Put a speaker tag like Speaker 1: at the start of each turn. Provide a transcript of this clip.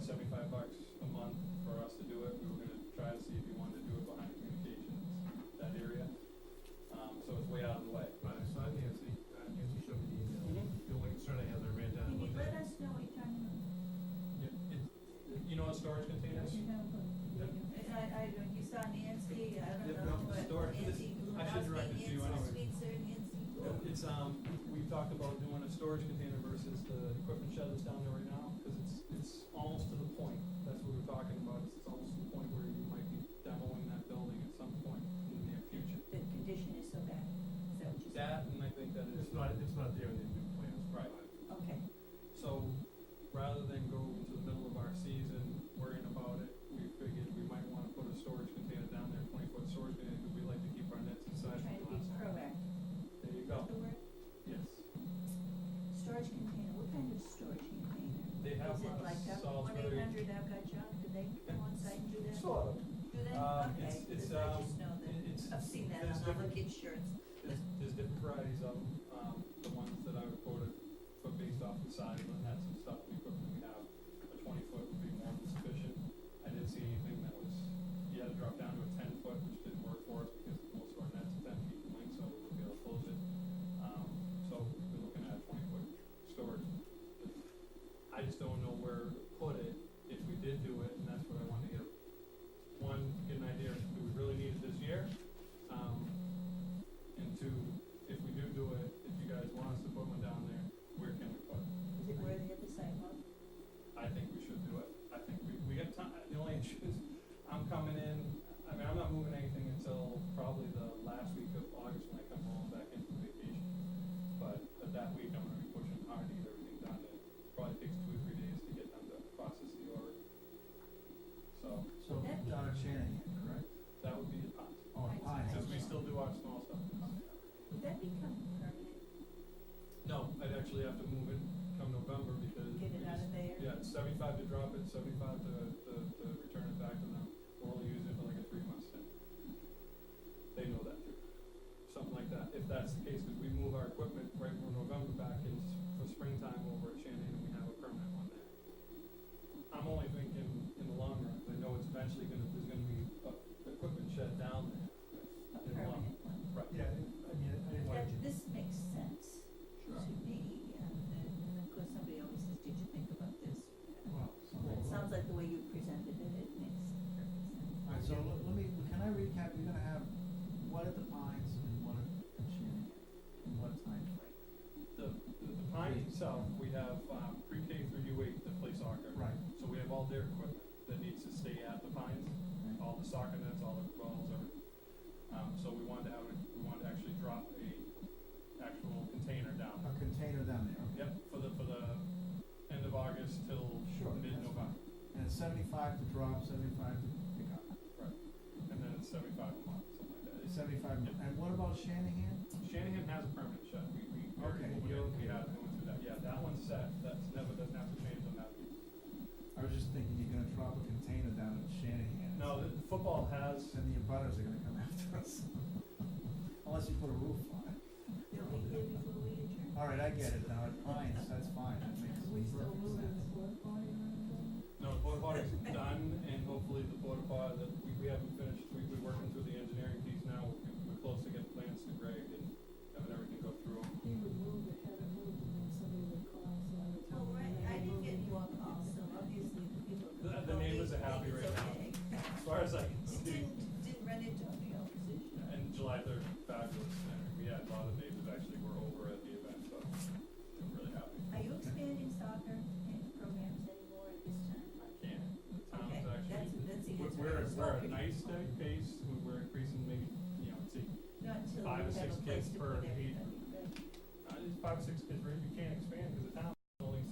Speaker 1: seventy-five bucks a month for us to do it. We were gonna try to see if he wanted to do it behind communications, that area. Um, so it's way out of the way.
Speaker 2: But I saw Nancy, uh, Nancy showed me the email. The only concern I had, I ran down and
Speaker 3: Mm-hmm. Can you
Speaker 2: looked
Speaker 3: let
Speaker 2: at.
Speaker 3: us know what you're talking about?
Speaker 1: It, it, you know what storage containers?
Speaker 3: You're gonna put-
Speaker 1: Yeah.
Speaker 3: I, I, don't- you saw Nancy, I
Speaker 1: Yeah, no,
Speaker 3: don't know
Speaker 1: store-
Speaker 3: what,
Speaker 1: this-
Speaker 3: Nancy
Speaker 1: I should
Speaker 3: Gutowski,
Speaker 1: direct it to
Speaker 3: Nancy
Speaker 1: you anyway.
Speaker 3: Switzer, Nancy.
Speaker 1: It's, um, we talked about doing a storage container versus the equipment shed that's down there right now, because it's, it's almost to the point. That's what we were talking about, is it's almost to the point where you might be demoing that building at some point in the near future.
Speaker 3: The condition is so bad, so just,
Speaker 1: That, and I think that is.
Speaker 2: It's not, it's not there in the new plans.
Speaker 1: Right.
Speaker 3: okay,
Speaker 1: So rather than go into the middle of our season worrying about it, we figured we might wanna put a storage container down there, twenty foot storage container, because we like to keep our nets inside.
Speaker 3: trying to be proactive,
Speaker 1: There you
Speaker 3: What's
Speaker 1: go.
Speaker 3: the word?
Speaker 1: Yes.
Speaker 3: Storage container, what kind of storage container?
Speaker 1: They have
Speaker 3: Is it
Speaker 1: a
Speaker 3: like a one
Speaker 1: Salisbury-
Speaker 3: eight hundred I've got junk, do they go on site and do that?
Speaker 1: Sort of.
Speaker 3: Do they?
Speaker 1: Um,
Speaker 3: Okay,
Speaker 1: it's- it's,
Speaker 3: 'cause I
Speaker 1: um,
Speaker 3: just know
Speaker 1: it- it's-
Speaker 3: that, I've seen that
Speaker 1: there's
Speaker 3: on other
Speaker 1: different-
Speaker 3: kids' shirts.
Speaker 1: There's, there's different varieties of them, um, the ones that I would quoted, but based off the size and that's some stuff we put, we have, a twenty foot would be more than sufficient. I didn't see anything that was, you had to drop down to a ten foot, which didn't work for us because most of our nets are ten feet in length, so we wouldn't be able to close it. Um, so we're looking at a twenty foot storage. I just don't know where to put it if we did do it, and that's what I wanted to get, one, get an idea of do we really need it this year? Um, and two, if we do do it, if you guys want us to put one down there, where can we put it?
Speaker 3: Is it worthy of the sidewalk?
Speaker 1: I think we should do it. I think we, we got time, the only issue is, I'm coming in, I mean, I'm not moving anything until probably the last week of August when I come home back in from vacation. But, but that week, I'm gonna be pushing hard to get everything done, it probably takes two or three days to get them to process the order. So,
Speaker 4: So down at Shanahan, correct?
Speaker 1: that would be the pot,
Speaker 4: Oh,
Speaker 3: Right.
Speaker 4: Pine.
Speaker 1: because we still do our small stuff.
Speaker 3: Would that become permanent,
Speaker 1: No, I'd actually have to move it come November because we
Speaker 3: get it out
Speaker 1: just
Speaker 3: of there?
Speaker 1: Yeah, it's seventy-five to drop it, seventy-five to, to, to return it back to them, we'll only use it for like a three-month stint. They know that too, something like that, if that's the case, because we move our equipment right from November back in, s- for springtime over at Shannon, and we have a permanent one there. I'm only thinking in the long run, 'cause I know it's eventually gonna, there's gonna be, uh, equipment shed down there.
Speaker 3: A
Speaker 1: in the long-
Speaker 3: permanent one?
Speaker 1: Right.
Speaker 2: Yeah, I didn't- I mean, I didn't want
Speaker 3: That,
Speaker 2: to.
Speaker 3: this makes sense
Speaker 1: Sure.
Speaker 3: to me, and, and and of course, somebody always says, did you think about this?
Speaker 4: Well, so-
Speaker 3: Well, It sounds like the way you presented it, it makes perfect sense.
Speaker 4: All right, so let let me, can I recap, we're gonna have what at the Pines and what at Shanahan, and what time frame?
Speaker 1: The, the, the pine itself, we have, um, pre-K through U eight that play soccer.
Speaker 4: Right.
Speaker 1: So we have all their equipment that needs to stay at the pines, all the soccer nets, all the balls, everything. Um, so we wanted to have, it- we wanted to actually drop a actual container down.
Speaker 4: A container down there, okay?
Speaker 1: Yep, for the, for the end of August till
Speaker 4: Sure, that's
Speaker 1: mid-November.
Speaker 4: And it's seventy-five to drop, seventy-five to pick up,
Speaker 1: And then it's seventy-five a month, something like that. It's-
Speaker 4: seventy-five,
Speaker 1: Yep.
Speaker 4: and what about Shanahan?
Speaker 1: Shanahan has a permanent shut, we, we, we already
Speaker 4: Okay,
Speaker 1: moved
Speaker 4: you're
Speaker 1: it. we
Speaker 4: okay.
Speaker 1: have, we went through that, yeah, that one's set, that's never, doesn't have to change on that.
Speaker 4: I was just thinking, you're gonna drop a container down at Shanahan.
Speaker 1: No, the, the football has,
Speaker 4: Then the abutters are gonna come after us, unless you put a roof on it.
Speaker 3: Bill, we did before we adjourned.
Speaker 4: All right, I get it now, at Pines, that's fine, that makes
Speaker 3: Are we still
Speaker 4: perfect
Speaker 3: moving
Speaker 4: sense.
Speaker 3: the floor party around?
Speaker 1: No, the porta potty's done, and hopefully the porta potty that we, we haven't finished, we, we're working through the engineering piece now, we're, we're close to getting plans to Greg and having everything go through.
Speaker 5: He would move it, have it moved, and then somebody would call, so I would tell
Speaker 3: Well, Oh,
Speaker 5: them.
Speaker 3: right, I
Speaker 5: that I'm
Speaker 3: didn't get
Speaker 5: moving.
Speaker 3: your call, so obviously the people.
Speaker 1: The- the neighbors are happy right now. As far as I can
Speaker 3: It
Speaker 1: see,
Speaker 3: didn't, didn't run into any opposition.
Speaker 1: and July third, fabulous, and we had a lot of neighbors actually were over at the event, so I'm really happy.
Speaker 3: Are you expanding soccer and programs anymore at this time?
Speaker 1: I can, the town's
Speaker 3: Okay, that's,
Speaker 1: actually,
Speaker 3: that's the
Speaker 1: we're,
Speaker 3: answer. I
Speaker 1: we're,
Speaker 3: was
Speaker 1: we're a
Speaker 3: hoping.
Speaker 1: nice steady pace, We- we're increasing maybe, you know, it's a
Speaker 3: Not until
Speaker 1: five or
Speaker 3: we have
Speaker 1: six
Speaker 3: a
Speaker 1: kids
Speaker 3: place to
Speaker 1: per
Speaker 3: put
Speaker 1: heat.
Speaker 3: everybody, right?
Speaker 1: Uh, it's five, six kids, right? you can't expand because the town